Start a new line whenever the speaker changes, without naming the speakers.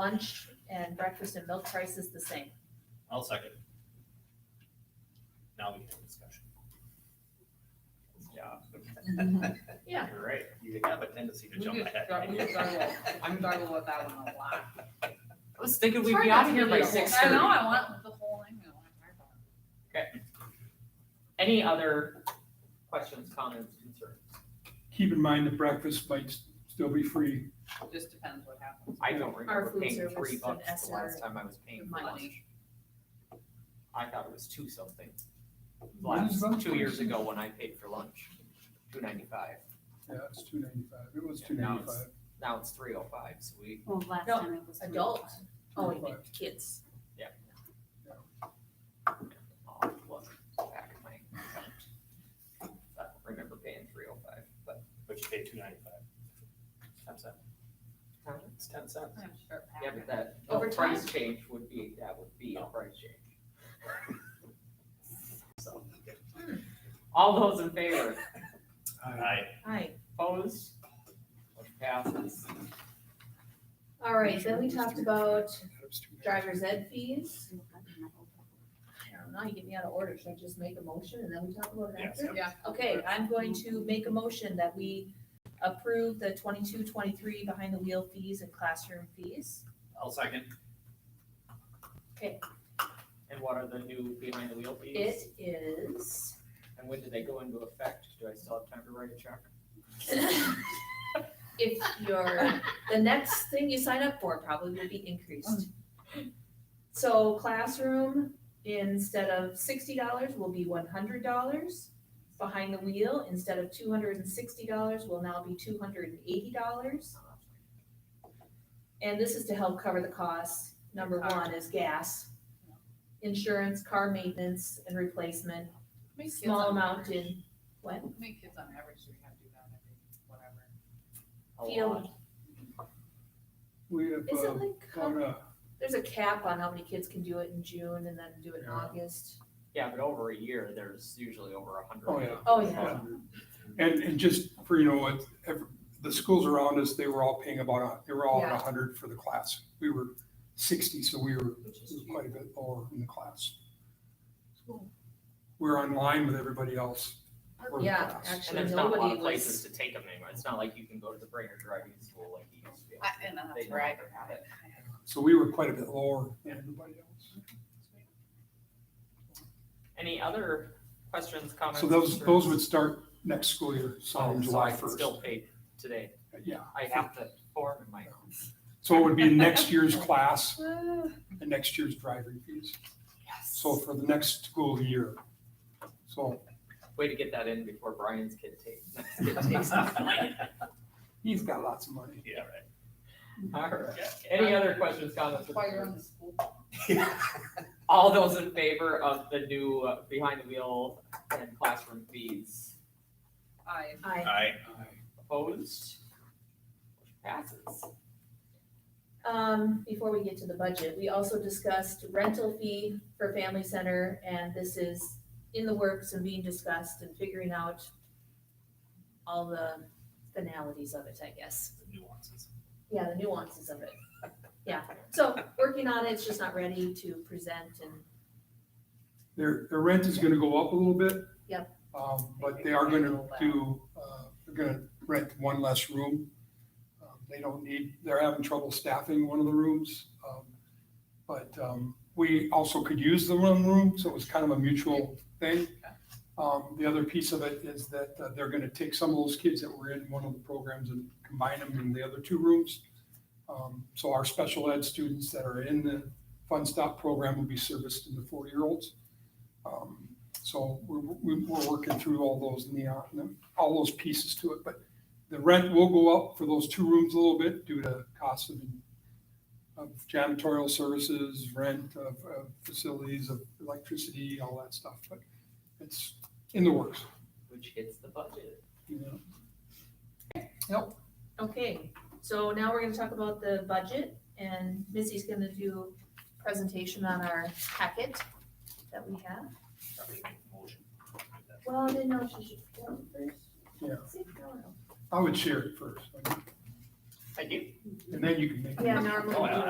lunch and breakfast and milk prices the same.
I'll second. Now we can have discussion. Yeah.
Yeah.
You're right, you have a tendency to
We
jump
just
ahead.
got- we struggle. I'm struggling with that one a lot.
I was thinking
It's
we'd
hard
be
not
out
to
of here
be
by
able-
six
I
thirty.
know, I want the whole thing. I want my phone.
Any other questions, comments, concerns?
Keep in mind that breakfast might s- still be free.
Just depends what happens.
I don't
Our
remember
food
paying
service
three
and
bucks the
SR
last time I was paying for
money.
lunch. I thought it was two something.
What
Last,
is lunch
two years
prices?
ago when I paid for lunch, two ninety-five.
Yeah, it's two ninety-five. It was
Yeah,
two
now it's-
ninety-five.
Now it's three oh five, so we,
Well, last
No,
time it was.
Adult, oh, you mean kids.
I'll look back at my account. I don't remember paying three oh five, but
But you pay two ninety-five. Ten cents.
Huh?
It's ten cents.
I'm sure.
yeah, but that, a
Over
price change would be, that would be a
Oh.
price change. So, Hmm. all those in favor?
I,
Hi.
Opposed? Motion passes.
All right, then we talked about driver's ed fees. I don't know, you get me out of order, should I just make a motion and then we talk about it
Yes.
after?
Yeah.
Okay, I'm going to make a motion that we approve the twenty-two, twenty-three behind the wheel fees and classroom fees.
I'll second.
And what are the new behind the wheel fees?
It is.
And when do they go into effect? Do I still have time to write a check?
If your, the next thing you sign up for probably will be increased. So classroom, instead of sixty dollars, will be one hundred dollars. Behind the wheel, instead of two hundred and sixty dollars, will now be two hundred and eighty dollars. And this is to help cover the costs. Number one is gas, insurance, car maintenance and replacement,
Make kids
small
on
amount
average-
in what?
Make kids on average, so we have to do that every, whatever.
A
Field.
lot.
We have,
Is
uh,
it like? how
about a,
There's a cap on how many kids can do it in June and then do it in
Yeah.
August.
Yeah, but over a year, there's usually over a hundred.
oh,
Oh,
yeah.
yeah.
Yeah. And, and just for, you know, what, ev- the schools around us, they were all paying about, a- they were all at
Yeah.
hundred for the class. We were sixty, so we were
Which is
we were
cheap.
quite a bit lower in the class.
Cool.
We're in line with everybody else. for the
Oh, Yeah,
class.
actually.
And there's not a lot
Nobody
of
was-
places to take them anymore. It's not like you can go to the Brainerd Driving School like you used to. be able
I, and then
They
that's
don't
where I
have
got it.
So we were quite a bit lower than everybody else.
to. Any other questions, comments?
So those, those would
concerns?
start next school year, so
Oh,
on
so I
July
can
first.
still pay today.
Yeah,
I have the form in my.
so it would be next year's class and next year's driving fees.
Yes.
So for the next school year. So
Way to get that in before Brian's kid takes, next kid takes. the money.
he's got lots of money.
Yeah, right.
All right. Any other questions, comments? or
While you're on
concerns?
the school.
All those in favor of the new uh, behind the wheel and classroom fees?
I,
I,
I,
Opposed? Passes.
um, before we get to the budget, we also discussed rental fee for family center and this is in the works and being discussed and figuring out all the finalities of it, I guess.
the nuances.
Yeah, the nuances of it. Yeah, so working on it, it's just not ready to present and
Their, their rent is gonna go up a little bit.
Yep.
Um, but they are gonna do, uh, they're gonna rent one less room. Um, They don't need, they're having trouble staffing one of the rooms. Um, But, um, we also could use the one room, so it was kind of a mutual thing. Um, the other piece of it is that uh, they're gonna take some of those kids that were in one of the programs and combine them in the other two rooms. Um, So our special ed students that are in the Fun Stop program will be serviced in the four-year-olds. Um, So we're, we're we're working through all those neon, all those pieces to it, but the rent will go up for those two rooms a little bit due to cost of, of janitorial services, rent of, of facilities, of electricity, all that stuff, but it's in the works,
Which hits the budget.
you know.
Okay, so now we're gonna talk about the budget and Missy's gonna do presentation on our packet that we have.
Probably make a motion.
Well, I didn't know she should go first.
Yeah.
See, I don't know.
I would share it first,
I do
and then you can make.
Yeah, normally.
Oh, yeah.